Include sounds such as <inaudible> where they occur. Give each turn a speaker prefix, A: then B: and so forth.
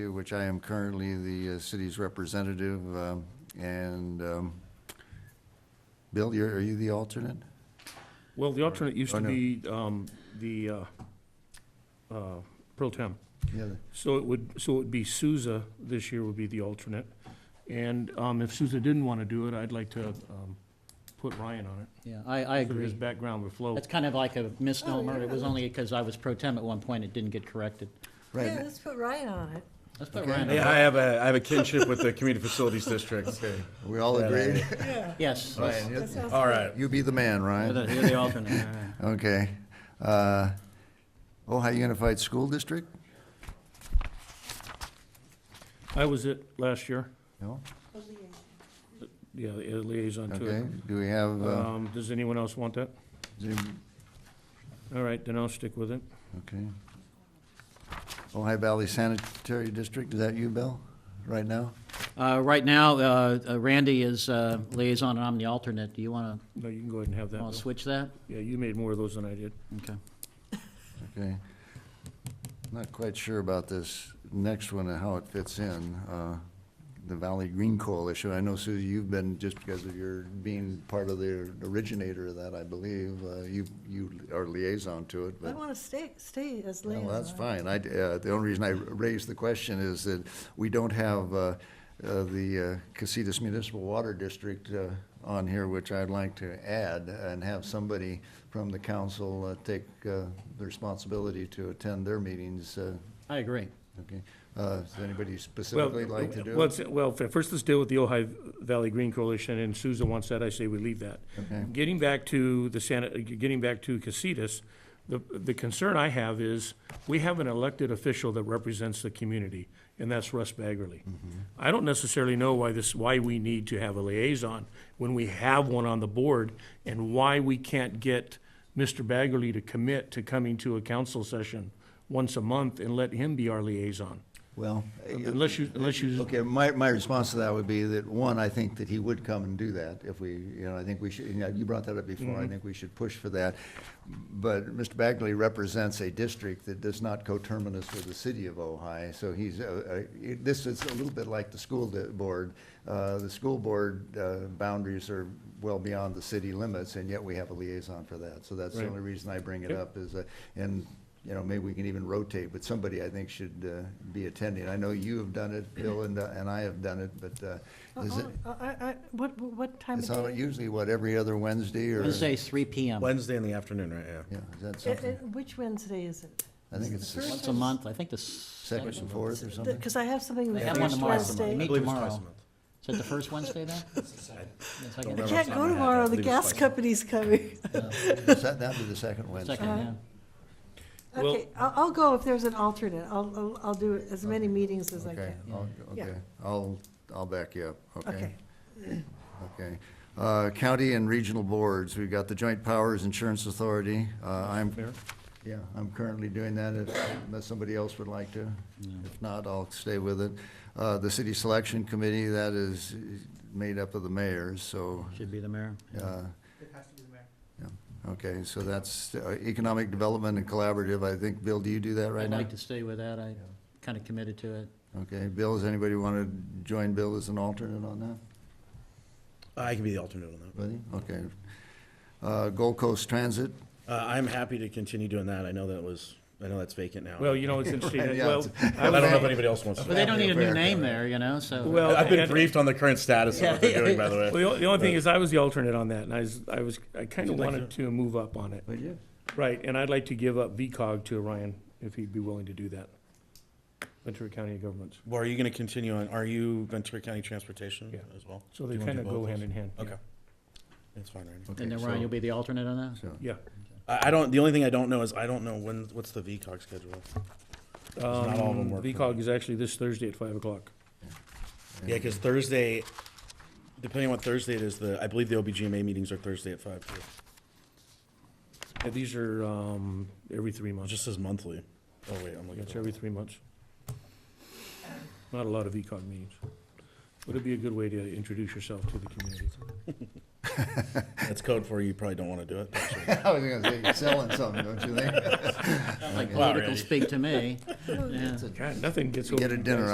A: which I am currently the uh, city's representative, um, and, um, Bill, you're, are you the alternate?
B: Well, the alternate used
A: Oh,
B: to
A: no.
B: be um, the uh, uh, pro tem.
A: Yeah. the-
B: So it would, so it would be Souza this year would be the alternate. And um, if Souza didn't want to do it, I'd like to um, put Ryan on it.
C: Yeah, I, I
B: So His
C: agree.
B: background would flow.
C: That's kind of like a misnomer. It was only because I was pro tem at one point, it didn't get corrected.
A: Right,
D: Yeah, let's put Ryan on it.
C: Let's put
A: Okay.
C: Ryan
E: Yeah,
C: on.
E: I have a, I have a kinship with the Community Facilities District.
A: we all agreed?
D: Yeah.
C: Yes.
A: Ryan,
D: that
A: you-
D: sounds
E: All
D: good.
E: right.
A: you be the man,
C: You're the
A: Ryan.
C: you're the alternate.
A: <laughs>
C: all right.
A: Okay. Uh, Ohio Unified School District?
B: I was it last year,
A: No?
B: yeah, the liaison to
A: Okay,
B: it.
A: do we have, uh,
B: Um, Does anyone else want that?
A: Zoom?
B: All right, then I'll stick with it.
A: okay. Ohio Valley Sanitary District, is that you, Bill, right now?
C: Uh, Right now, uh, uh, Randy is uh, liaison and I'm the alternate. Do you want
B: No, you can go ahead and have
C: to,
B: that.
C: want to
B: Bill.
C: switch that?
B: Yeah, you made more of those than I did.
C: Okay.
A: Okay. Not quite sure about this next one and how it fits in, uh, the Valley Green Coalition. I know, Susie, you've been, just because of your being part of the originator of that, I believe, uh, you, you are liaison to it,
D: I
A: but.
D: want to stay, stay as
A: Well,
D: liaison.
A: that's fine. I, uh, the only reason I raised the question is that we don't have, uh, uh, the uh, Casitas Municipal Water District, uh, on here, which I'd like to add and have somebody from the council, uh, take, uh, the responsibility to attend their meetings, uh,
C: I agree.
A: okay? Uh, does anybody
B: Well, uh,
A: specifically like to do
B: well,
A: it?
B: it's- Well, f- first let's deal with the Ojai Valley Green Coalition, and Souza wants that, I say we leave that.
A: Okay.
B: Getting back to the Santa, uh, getting back to Casitas, the, the concern I have is, we have an elected official that represents the community, and that's Russ Baggerly.
A: Mm-hmm.
B: I don't necessarily know why this, why we need to have a liaison when we have one on the board, and why we can't get Mr. Baggerly to commit to coming to a council session once a month and let him be our liaison.
A: Well,
B: Unless you, unless you
A: Okay, my, my response to that would be that, one, I think that he would come and do that if we, you know, I think we should, you know, you brought that up before, I think we should push for that. But Mr. Bagley represents a district that does not coterminous with the city of Ojai, so he's, uh, uh, it- this is a little bit like the school di- board. Uh, The school board uh, boundaries are well beyond the city limits, and yet we have a liaison for that. So that's the
B: Right.
A: only reason I bring it
B: Yep.
A: up is, uh, and, you know, maybe we can even rotate, but somebody I think should uh, be attending. I know you have done it, Bill and, uh, and I have done it, but uh, is it,
D: Uh-uh, I, I, what, what time
A: it's
D: of
A: on
D: day?
A: usually what, every other Wednesday or?
C: Let's say 3 PM.
E: Wednesday in the afternoon, right, yeah.
A: Yeah, is that
D: It-
A: something?
D: it- Uh, Which Wednesday is it?
A: I think it's the
C: Once a month, I think the
A: second
C: second.
A: and fourth or something?
D: Because I have something the
C: have one
D: first
C: tomorrow.
E: I
D: Wednesday.
E: believe it's twice a
C: tomorrow.
E: month.
C: Is it the first Wednesday then? The second?
D: I
E: Don't
D: can't go
E: Remember,
D: tomorrow, the
E: I believe it's
D: gas
E: twice.
D: company's coming. <laughs>
A: Is that- That'd be the second Wednesday.
C: Second, yeah.
B: Well-
D: Okay, I'll, I'll go if there's an alternate. I'll, I'll, I'll do as many meetings as I
A: Okay,
D: can.
A: I'll-
D: Yeah.
A: okay, I'll, I'll back you up, okay?
D: Okay.
A: Okay. Uh, County and regional boards, we've got the Joint Powers Insurance Authority. Uh, I'm,
B: Mayor?
A: yeah, I'm currently doing that if, unless somebody else would like to. If not, I'll stay with it. Uh, The City Selection Committee, that is made up of the mayors, so
C: Should be the mayor.
A: uh, yeah, Okay, so that's uh, Economic Development and Collaborative, I think, Bill, do you do that right
C: I'd
A: now?
C: like to stay with that. I kind of committed to it.
A: Okay, Bill, does anybody want to join Bill as an alternate on that?
E: Uh, I can be the alternate on that.
A: Buddy? Okay. Uh, Gold Coast Transit,
E: Uh, I'm happy to continue doing that. I know that was, I know that's vacant now.
B: Well, you know, it's interesting,
A: <laughs>
B: that-
A: yeah,
B: well,
A: it's-
B: I
E: I don't know if
B: was,
E: anybody else wants
C: But
E: to.
C: they don't need a new
A: Fair.
C: name there, you know, so.
B: well.
E: I've been
B: and-
E: briefed on the current status of what they're doing, by the way.
B: Well, the the only thing is, I was the alternate on that, and I was, I was, I kind of
E: You'd like
B: wanted to move up on it.
A: would you?
B: Right, and I'd like to give up VCOG to Ryan, if he'd be willing to do that. Ventura County Governments.
E: <laughs> Well, are you gonna continue on, are you Ventura County Transportation
B: Yeah.
E: as well?
B: So
E: Do
B: they
E: you wanna
B: kind
E: do
B: of
E: both
B: go
E: those?
B: hand in hand. yeah.
E: Okay. That's fine, Randy.
A: Okay,
C: And then
A: so-
C: Ryan, you'll be the alternate on that?
A: so-
B: Yeah.
E: I, I don't, the only thing I don't know is I don't know when, what's the VCOG schedule? not all of them
B: Um,
E: work.
B: VCOG is actually this Thursday at five o'clock.
E: Yeah, because Thursday, depending on what Thursday it is, the, I believe the OBGMA meetings are Thursday at five too.
B: Yeah, These are, um, every three
E: It
B: months.
E: just says monthly. Oh, wait, I'm looking.
B: It's
E: at the-
B: every three months. Not a lot of VCOG meetings. Would it be a good way to introduce yourself to the community?
E: That's code for you probably don't want to do it.
A: <laughs> I was gonna say, you're selling something, don't you think?
C: Like
E: Wow,
C: political
E: Randy.
C: speak to me. Yeah.
B: God, nothing gets over.
A: Get a
B: you
A: dinner
B: guys.